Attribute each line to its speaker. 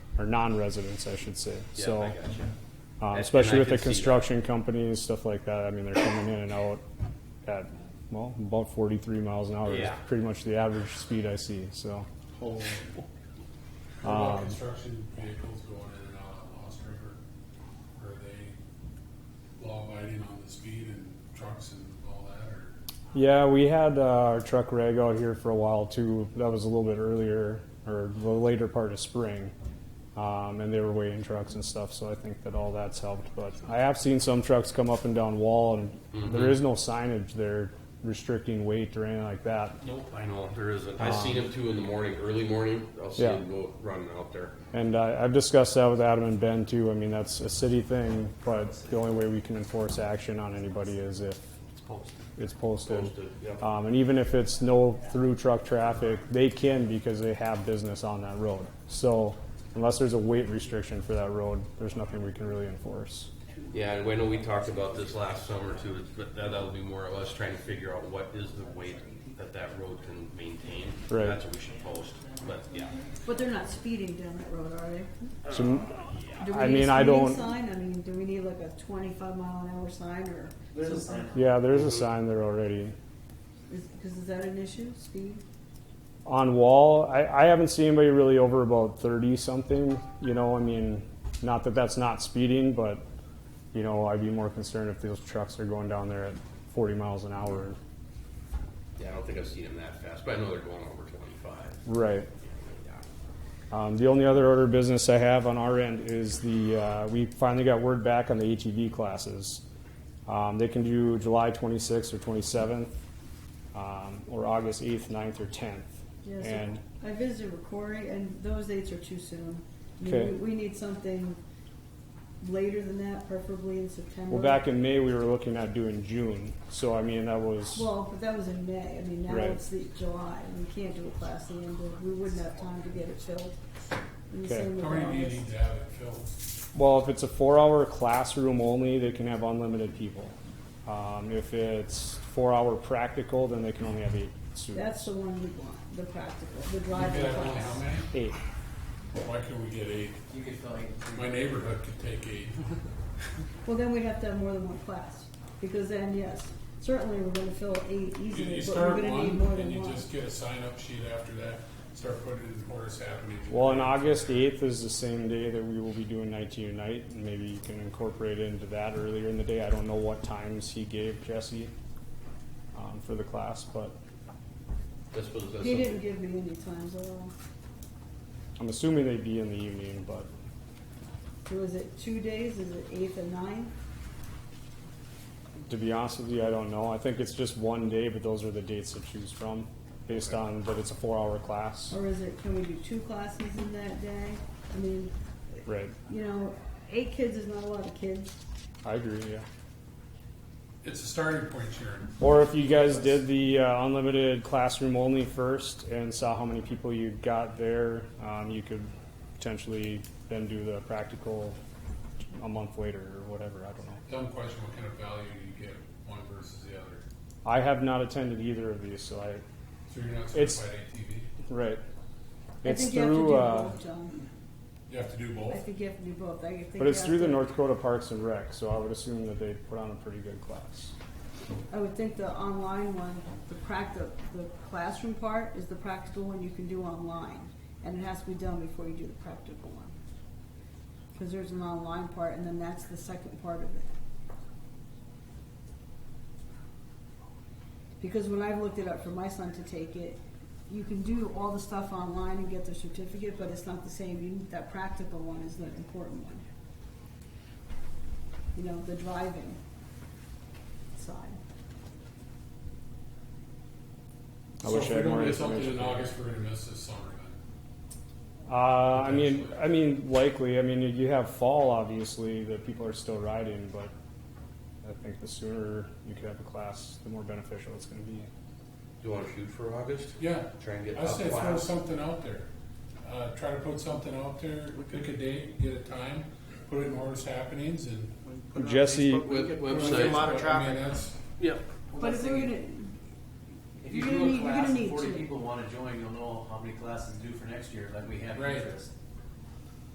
Speaker 1: or non-residents, I should say.
Speaker 2: Yeah,
Speaker 1: So,
Speaker 2: I got you.
Speaker 1: um,
Speaker 2: And-
Speaker 1: especially
Speaker 2: and I
Speaker 1: with the
Speaker 2: can see that.
Speaker 1: construction companies, stuff like that. I mean, they're coming in and out at, well, about forty-three miles an hour is
Speaker 2: Yeah.
Speaker 1: pretty much the average speed I see, so.
Speaker 3: Whole. What about
Speaker 1: Um,
Speaker 3: construction vehicles going in and out on Lost River? Are they law abiding on the speed and trucks and all that, or?
Speaker 1: Yeah, we had uh, our truck rag out here for a while too. That was a little bit earlier or the later part of spring. Um, and they were weighing trucks and stuff, so I think that all that's helped. But I have seen some trucks come up and down wall, and
Speaker 2: Mm-hmm.
Speaker 1: there is no signage there restricting weight or anything like that.
Speaker 2: Nope, I know, there isn't.
Speaker 4: I seen him too in the morning, early morning. I'll see
Speaker 1: Yeah.
Speaker 4: him go running out there.
Speaker 1: And I, I've discussed that with Adam and Ben too. I mean, that's a city thing, but the only way we can enforce action on anybody is if
Speaker 2: It's posted.
Speaker 1: it's posted.
Speaker 4: Posted, yep.
Speaker 1: Um, and even if it's no through truck traffic, they can because they have business on that road. So unless there's a weight restriction for that road, there's nothing we can really enforce.
Speaker 4: Yeah, and I know we talked about this last summer too, but that, that'll be more or less trying to figure out what is the weight that that road can maintain.
Speaker 1: Right.
Speaker 4: That's what we should post, but yeah.
Speaker 5: But they're not speeding down that road, are they?
Speaker 1: So
Speaker 5: Do we
Speaker 1: I
Speaker 5: need a
Speaker 1: mean, I
Speaker 5: speeding
Speaker 1: don't-
Speaker 5: Sign, I mean, do we need like a twenty-five mile an hour sign or?
Speaker 6: There's a sign.
Speaker 1: yeah, there's a sign there already.
Speaker 5: Is, cause is that an issue, speed?
Speaker 1: on wall I, I haven't seen anybody really over about 30 something you know i mean not that that's not speeding but you know i'd be more concerned if those trucks are going down there at 40 miles an hour
Speaker 4: Yeah, I don't think I've seen him that fast, but I know they're going over twenty-five.
Speaker 1: right
Speaker 4: Yeah.
Speaker 1: Um, the only other order of business I have on our end is the, uh, we finally got word back on the ATV classes. Um, they can do July twenty-sixth or twenty-seventh, um, or August eighth, 9th, or tenth.
Speaker 5: Yes,
Speaker 1: And,
Speaker 5: I visited with Corey, and those dates are too soon. I mean,
Speaker 1: Okay.
Speaker 5: We we need something later than that, preferably in September.
Speaker 1: well, back in May, we were looking at doing June, so I mean, that was,
Speaker 5: Well, but that was in May, I mean, now
Speaker 1: Right.
Speaker 5: it's the July, and we can't do a class the end of, we wouldn't have time to get it filled. And the
Speaker 1: Okay.
Speaker 5: same with
Speaker 3: How many do you
Speaker 5: August.
Speaker 3: need to have it filled?
Speaker 1: well, if it's a four-hour classroom only, they can have unlimited people. Um, if it's four-hour practical, then they can only have eight
Speaker 5: That's
Speaker 1: students.
Speaker 5: the one we want, the practical, the
Speaker 3: You could
Speaker 5: driving
Speaker 3: have only how
Speaker 5: class.
Speaker 3: many?
Speaker 1: Eight.
Speaker 3: Why can't we get eight?
Speaker 6: You could fill like
Speaker 3: My neighborhood could take eight.
Speaker 5: Well, then we'd have to have more than one class, because then, yes, certainly we're gonna fill eight
Speaker 3: You- You
Speaker 5: easily, but we're
Speaker 3: start
Speaker 5: gonna need
Speaker 3: one,
Speaker 5: more
Speaker 3: and
Speaker 5: than
Speaker 3: you
Speaker 5: one.
Speaker 3: just get a sign up sheet after that, start putting it in Horace Avenue.
Speaker 1: Well, on August 8th is the same day that we will be doing Night to Unite, and maybe you can incorporate it into that earlier in the day. I don't know what times he gave Jesse um, for the class, but
Speaker 4: This was, that's
Speaker 5: He
Speaker 4: something-
Speaker 5: didn't give me any times at all.
Speaker 1: I'm assuming they'd be in the evening, but
Speaker 5: So is it two days, is it eighth and ninth?
Speaker 1: to be honest with you, I don't know. I think it's just one day, but those are the dates to choose from, based on that it's a four-hour class.
Speaker 5: Or is it, can we do two classes in that day? I mean,
Speaker 1: Right.
Speaker 5: you know, eight kids is not a lot of kids.
Speaker 1: I agree, yeah.
Speaker 3: It's a starting point, Sharon.
Speaker 1: Or if you guys did the uh, unlimited classroom only first and saw how many people you got there, um, you could potentially then do the practical a month later or whatever. I don't know.
Speaker 3: Dumb question, what kind of value do you get one versus the other?
Speaker 1: I have not attended either of these, so I
Speaker 3: So you're not
Speaker 1: It's-
Speaker 3: certified ATV?
Speaker 1: right.
Speaker 5: I
Speaker 1: It's
Speaker 5: think you have to do
Speaker 1: through, uh,
Speaker 5: both, John.
Speaker 3: You have to do
Speaker 5: I
Speaker 3: both?
Speaker 5: think you have to do both. I think
Speaker 1: but it's
Speaker 5: you
Speaker 1: through
Speaker 5: have
Speaker 1: the
Speaker 5: to-
Speaker 1: North Dakota Parks and Rec, so I would assume that they put on a pretty good class.
Speaker 5: I would think the online one, the practical, the classroom part is the practical one you can do online, and it has to be done before you do the practical one. Because there's an online part, and then that's the second part of it. Because when I've looked it up for my son to take it, you can do all the stuff online and get the certificate, but it's not the same. You, that practical one is the important one. You know, the driving side.
Speaker 1: I wish I had more
Speaker 3: So if we don't get something in
Speaker 1: information.
Speaker 3: August, we're gonna miss this summer then.
Speaker 1: Uh, I mean, I mean, likely. I mean, you have fall, obviously, that people are still riding, but I think the sooner you could have a class, the more beneficial it's going to be.
Speaker 4: do you wanna shoot for August?
Speaker 3: Yeah.
Speaker 4: Try and get
Speaker 3: I
Speaker 4: a
Speaker 3: say throw
Speaker 4: class.
Speaker 3: something out there. Uh, try to put something out there, pick a date, get a time, put it in Horace Happenings and.
Speaker 6: put it on
Speaker 1: Jesse-
Speaker 6: Facebook, we
Speaker 4: Web-
Speaker 6: could-
Speaker 4: website.
Speaker 6: we get A lot of
Speaker 3: But, I mean,
Speaker 6: traffic.
Speaker 3: that's-
Speaker 4: Yep.
Speaker 5: But if we're gonna, you're
Speaker 6: If you
Speaker 5: gonna
Speaker 6: do
Speaker 5: need-
Speaker 6: a
Speaker 5: you're
Speaker 6: class
Speaker 5: gonna
Speaker 6: and
Speaker 5: need
Speaker 6: forty
Speaker 5: to.
Speaker 6: people wanna join, you'll know how many classes due for next year, like we have
Speaker 3: Right.
Speaker 6: interest.